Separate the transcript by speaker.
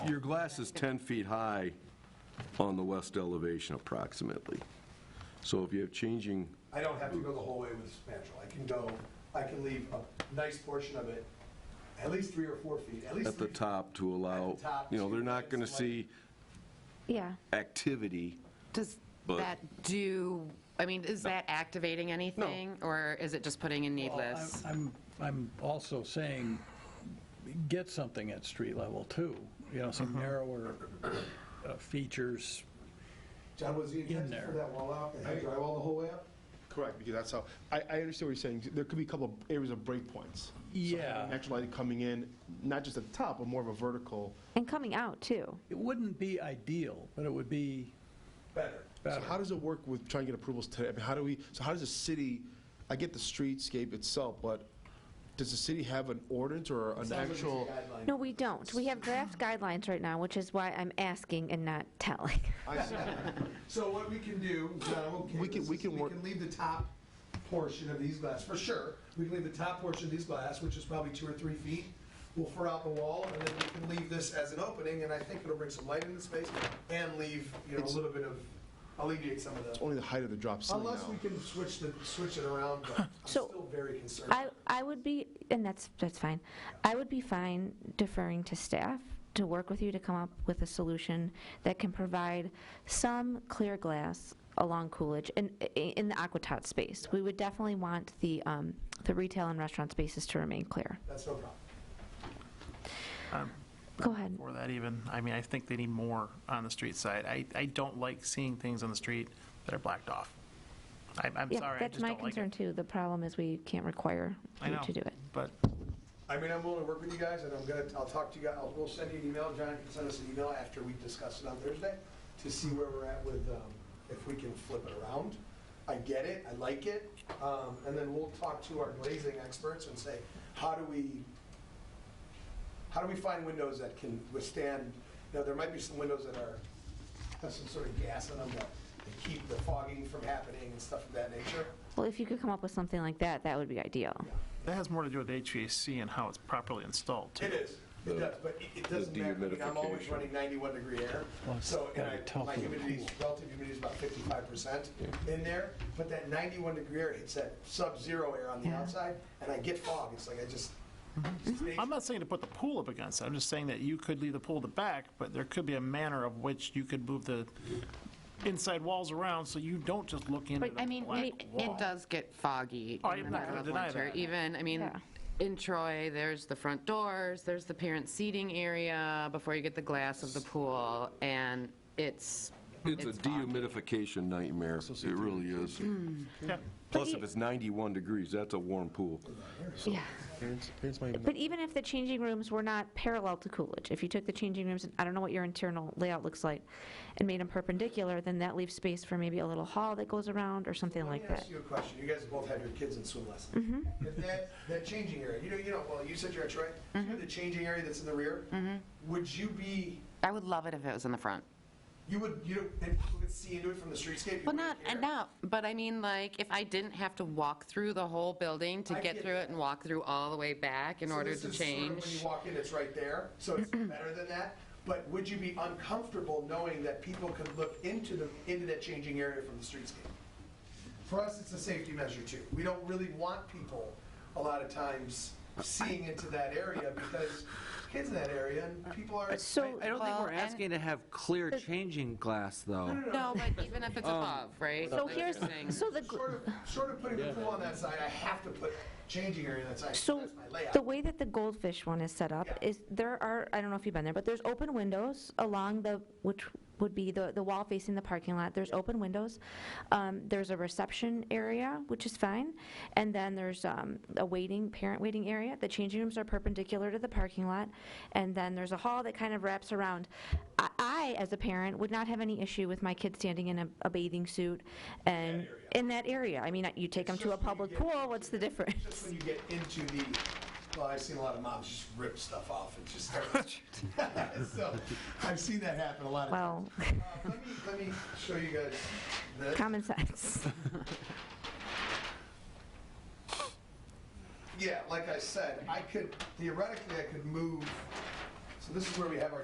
Speaker 1: your glass is 10 feet high on the west elevation approximately. So if you have changing,
Speaker 2: I don't have to go the whole way with spandrel. I can go, I can leave a nice portion of it, at least three or four feet, at least.
Speaker 1: at the
Speaker 2: three-
Speaker 1: top to allow,
Speaker 2: At the top
Speaker 1: you know, they're
Speaker 2: to
Speaker 1: not going to
Speaker 2: like-
Speaker 1: see
Speaker 3: Yeah.
Speaker 1: activity.
Speaker 4: Does
Speaker 1: But-
Speaker 4: that do, I mean, is that activating anything? Or is it just putting in
Speaker 5: Well, I'm-
Speaker 4: needless?
Speaker 5: I'm, I'm also saying, get something at street level too, you know, some narrower uh, features.
Speaker 2: John, was the
Speaker 5: In
Speaker 2: intent
Speaker 5: there.
Speaker 2: for that wall out, to have drywall the whole way up?
Speaker 6: Correct, because that's how, I, I understand what you're saying. There could be a couple of areas of breakpoints.
Speaker 5: Yeah.
Speaker 6: Natural lighting coming in, not just at the top, but more of a vertical.
Speaker 3: And coming out, too.
Speaker 5: It wouldn't be ideal, but it would be
Speaker 2: Better.
Speaker 6: So
Speaker 5: better.
Speaker 6: how does it work with trying to get approvals today? I mean, how do we, so how does the city, I get the streetscape itself, but does the city have an ordinance or an actual?
Speaker 2: Guideline.
Speaker 3: No, we don't. We have draft guidelines right now, which is why I'm asking and not telling.
Speaker 6: I see.
Speaker 2: So what we can do, John, I'm okay
Speaker 6: We
Speaker 2: with
Speaker 6: can-
Speaker 2: this,
Speaker 6: we
Speaker 2: is
Speaker 6: can
Speaker 2: we
Speaker 6: work-
Speaker 2: can leave the top portion of these glass, for sure. We can leave the top portion of these glass, which is probably two or three feet. We'll fur out the wall, and then we can leave this as an opening, and I think it'll bring some light into the space and leave, you know, a
Speaker 6: It's-
Speaker 2: little bit of, alleviate some of the.
Speaker 6: It's only the height of the drop ceiling
Speaker 2: Unless we
Speaker 6: now.
Speaker 2: can switch the, switch it around, but I'm
Speaker 3: So,
Speaker 2: still very concerned.
Speaker 3: I, I would be, and that's, that's fine. I would be fine deferring to staff to work with you to come up with a solution that can provide some clear glass along Coolidge in, i- in the Aquatot space. We would definitely want the, um, the retail and restaurant spaces to remain clear.
Speaker 2: That's no problem.
Speaker 3: Go ahead.
Speaker 7: for that even. I mean, I think they need more on the street side. I, I don't like seeing things on the street that are blacked off. I'm, I'm
Speaker 3: Yeah,
Speaker 7: sorry, I
Speaker 3: that's
Speaker 7: just
Speaker 3: my
Speaker 7: don't like
Speaker 3: concern,
Speaker 7: it.
Speaker 3: too. The problem is we can't require
Speaker 7: I
Speaker 3: you
Speaker 7: know,
Speaker 3: to do it.
Speaker 7: But
Speaker 2: I mean, I'm willing to work with you guys, and I'm gonna, I'll talk to you guys, I'll, we'll send you an email, John can send us an email after we discuss it on Thursday, to see where we're at with, um, if we can flip it around. I get it, I like it, um, and then we'll talk to our glazing experts and say, how do we, how do we find windows that can withstand, you know, there might be some windows that are, have some sort of gas in them that that keep the fogging from happening and stuff of that nature.
Speaker 3: Well, if you could come up with something like that, that would be ideal.
Speaker 7: that has more to do with HVAC and how it's properly installed, too.
Speaker 2: It is. It does, but it- it doesn't matter. I mean, I'm always
Speaker 1: dehumidification.
Speaker 2: running 91 degree air.
Speaker 5: Well,
Speaker 2: So, and
Speaker 5: that'd be
Speaker 2: I,
Speaker 5: tough
Speaker 2: my
Speaker 5: in the
Speaker 2: humidity, is- relative humidity is about 55% in there. But that 91 degree air hits that sub-zero air on the
Speaker 3: Yeah.
Speaker 2: outside, and I get fog. It's like I just.
Speaker 5: Mm-hmm.
Speaker 7: Mm-hmm. I'm not saying to put the pool up against it. I'm just saying that you could leave the pool at the back, but there could be a manner of which you could move the inside walls around so you don't just look into
Speaker 3: But,
Speaker 7: the
Speaker 4: I mean,
Speaker 7: black
Speaker 4: it,
Speaker 7: wall.
Speaker 4: it does get foggy
Speaker 7: Oh,
Speaker 4: in the
Speaker 7: I'm not
Speaker 4: middle
Speaker 7: gonna
Speaker 4: of
Speaker 7: deny
Speaker 4: winter.
Speaker 7: that.
Speaker 4: Even, I mean,
Speaker 3: Yeah.
Speaker 4: in Troy, there's the front doors, there's the parent seating area before you get the glass of the pool, and it's,
Speaker 1: It's a
Speaker 4: foggy.
Speaker 1: dehumidification nightmare. It really is.
Speaker 2: Hmm.
Speaker 7: Yeah.
Speaker 1: Plus,
Speaker 3: you-
Speaker 1: if it's 91 degrees, that's a warm pool.
Speaker 3: Yeah.
Speaker 6: Parents, parents might even
Speaker 3: But even if the changing rooms were not parallel to Coolidge, if you took the changing rooms, and I don't know what your internal layout looks like, and made them perpendicular, then that leaves space for maybe a little hall that goes around or something like
Speaker 2: Let me
Speaker 3: that.
Speaker 2: ask you a question. You guys both have your kids in swim lessons. If that, that changing area, you know, you know, well, you said you're at Troy. You know the changing area that's in the rear? Would you be,
Speaker 4: I would love it if it was in the front.
Speaker 2: you would, you know, and people could see into it from the streetscape? you
Speaker 4: Well,
Speaker 2: wouldn't
Speaker 4: not,
Speaker 2: care?
Speaker 4: not, but I mean, like, if I didn't have to walk through the whole building to
Speaker 2: I
Speaker 4: get
Speaker 2: get
Speaker 4: through
Speaker 2: that.
Speaker 4: it and walk through all the way back in
Speaker 2: So
Speaker 4: order
Speaker 2: this
Speaker 4: to
Speaker 2: is sort of
Speaker 4: change.
Speaker 2: When you walk in, it's right there, so it's better than that. But would you be uncomfortable knowing that people could look into the, into that changing area from the streetscape? For us, it's a safety measure too. We don't really want people, a lot of times, seeing into that area because kids in that area and people are.
Speaker 3: So,
Speaker 8: I don't think
Speaker 4: Well,
Speaker 8: we're
Speaker 4: and-
Speaker 8: asking to have clear changing glass, though.
Speaker 4: No, but even if it's above, right?
Speaker 3: Um, so
Speaker 4: Like you're
Speaker 3: here's,
Speaker 4: saying-
Speaker 3: so the,
Speaker 2: Sort of, sort of putting the pool on that side, I have to put changing area on that side,
Speaker 3: so
Speaker 2: that's my layout.
Speaker 3: the way that the goldfish one is set up
Speaker 2: Yeah.
Speaker 3: is, there are, I don't know if you've been there, but there's open windows along the, which would be the, the wall facing the parking lot, there's open windows. Um, There's a reception area, which is fine, and then there's um, a waiting, parent waiting area. The changing rooms are perpendicular to the parking lot, and then there's a hall that kind of wraps around. I- I, as a parent, would not have any issue with my kid standing in a- a bathing suit and, in that area. I mean, you take them to a
Speaker 2: just when you
Speaker 3: public
Speaker 2: get
Speaker 3: pool, what's the
Speaker 2: It's
Speaker 3: difference?
Speaker 2: Just when you get into the, well, I've seen a lot of moms just rip stuff off and just start. So, I've seen that happen a lot of times. Uh,
Speaker 3: Well,
Speaker 2: Let me, let me show you guys this.
Speaker 3: common sense.
Speaker 2: Yeah, like I said, I could, theoretically, I could move, so this is where we have our